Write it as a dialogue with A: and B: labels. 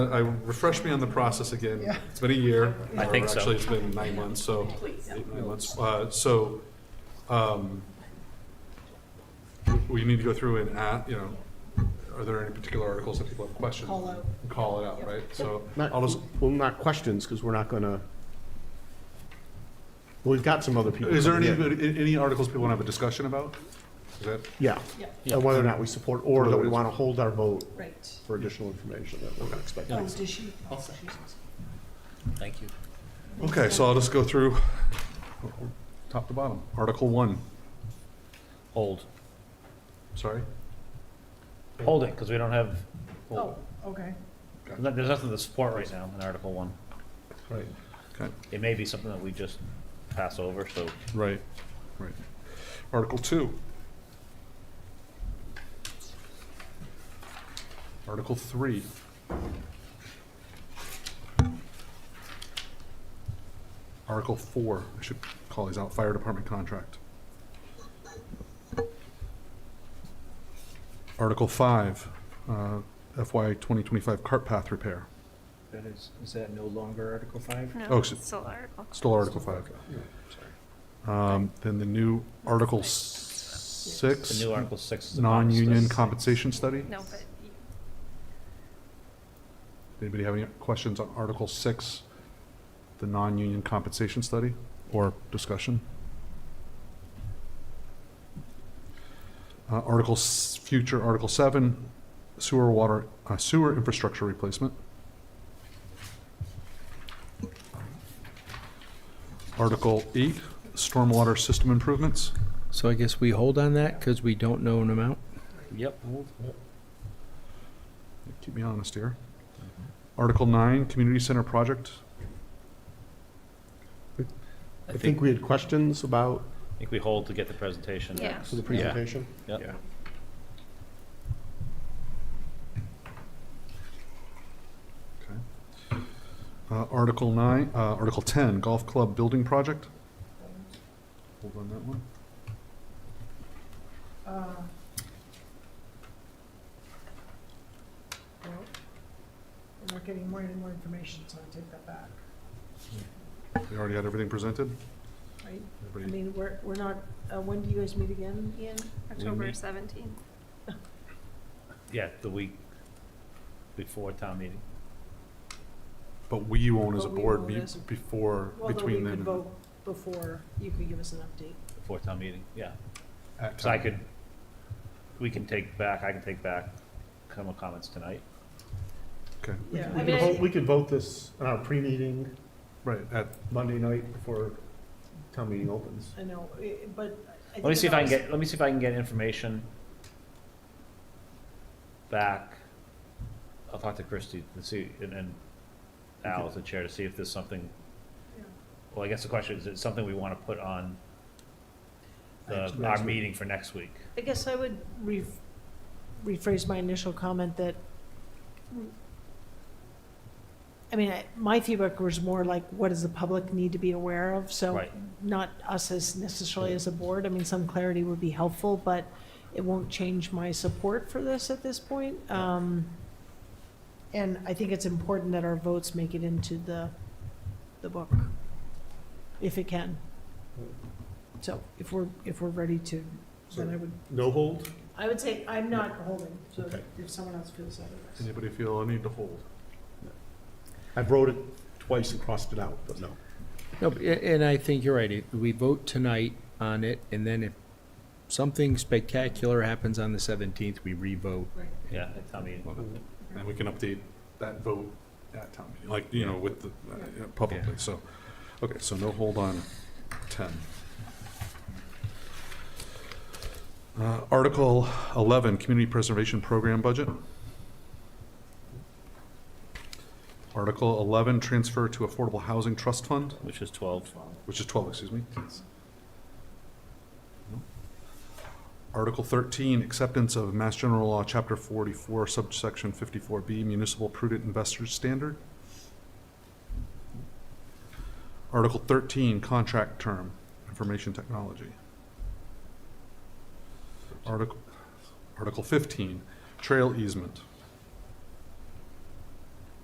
A: Uh, I, refresh me on the process again. It's been a year.
B: I
A: or
B: think so.
A: Actually, it's been nine months, so. Eight, nine months. Uh, So, um, we need to go through and, at- you know, are there any particular articles that people have questions?
C: Call out.
A: Call it out, right? So
D: Not,
A: I'll just,
D: well, not questions, because we're not gonna, well, we've got some other people.
A: is there any,
D: coming in.
A: any articles people want to have a discussion about? Is that?
D: Yeah,
C: Yeah,
D: and whether or not we support, or that we want to hold our vote
C: right.
D: for additional information that we're expecting.
C: Oh, does she?
B: I'll
C: Jesus.
B: second. Thank you.
A: Okay, so I'll just go through top to bottom. Article one,
B: Hold,
A: sorry.
B: holding, because we don't have,
C: Oh, okay.
B: there's nothing to support right now in Article One.
A: Right. Okay.
B: It may be something that we just pass over, so
A: Right, right. Article two. Article three. Article four, I should call these out, fire department contract. Article five, uh, FY twenty twenty-five cart path repair,
E: That is, is that no longer Article Five?
A: Oh,
F: No,
A: s-
F: it's still article.
A: still article five. Um, Then the new article s- six.
B: the new Article Six is. a bonus.
A: non-union compensation study?
F: No, but you-
A: Anybody have any questions on Article Six, the non-union compensation study or discussion? Uh, Article, s- future Article Seven, sewer water, uh, sewer infrastructure replacement. Article Eight, stormwater system improvements.
E: So I guess we hold on that because we don't know an amount?
B: Yep.
A: Keep me honest here. Article Nine, community center project.
D: I think we had questions about,
B: I think we hold to get the presentation.
F: yeah.
D: for the presentation.
B: Yep.
D: Yeah.
A: Okay. Uh, Article nine, uh, Article ten, golf club building project. Hold on that one.
C: Uh, well, We're not getting more any more information, so I take that back,
A: We already had everything presented.
C: right? I
A: Everybody-
C: mean, we're, we're not, uh, when do you guys meet again, Ian?
F: October
B: meet-
F: seventeenth.
B: Yeah, the week before town meeting.
A: But we won't as a
C: But we
A: board
C: won't
A: meet
C: as a-
A: before,
C: Although we
A: between
C: could
A: then and
C: vote before you could give us an update.
B: Before town meeting, yeah.
A: at
B: So I
A: town.
B: could, we can take back, I can take back some of comments tonight.
A: Okay,
C: Yeah,
D: We
C: I
D: could
C: mean,
D: vote,
C: I-
D: we could vote this on our pre-meeting
A: right, at,
D: Monday night before town meeting opens.
C: I know, i- but. I
B: Let me
C: think
B: see if
C: it
B: I can
C: always-
B: get, let me see if I can get information back. I'll talk to Christie to see, and, and Al as the chair to see if there's something,
C: Yeah.
B: well, I guess the question is, is it something we want to put on the,
D: Next- next
B: our
D: week.
B: meeting for next week?
C: I guess I would re- rephrase my initial comment that, I mean, I- my feedback was more like, what does the public need to be aware of? So
B: Right.
C: not us as necessarily as a board, I mean, some clarity would be helpful, but it won't change my support for this at this point. Um, And I think it's important that our votes make it into the, the book, if it can. So if we're, if we're ready to, then I would
D: No hold?
C: I would say I'm not holding, so
D: Okay.
C: if someone else feels otherwise.
A: anybody feel a need to hold?
D: I wrote it twice and crossed it out, but no.
E: No, but- a- and I think you're right. If We vote tonight on it, and then if something spectacular happens on the seventeenth, we re-vote.
C: Right.
B: Yeah, at town meeting.
A: And we can update that vote at town meeting, like, you know, with the, uh, yeah, publicly, so. Okay, so no hold on ten. Uh, Article eleven, community preservation program budget. Article eleven, transfer to affordable housing trust fund,
B: Which is twelve.
A: which is twelve, excuse me. Article thirteen, acceptance of Mass General Law, Chapter forty-four, subsection fifty-four B, municipal prudent investors standard. Article thirteen, contract term, information technology. Article, Article fifteen, trail easement.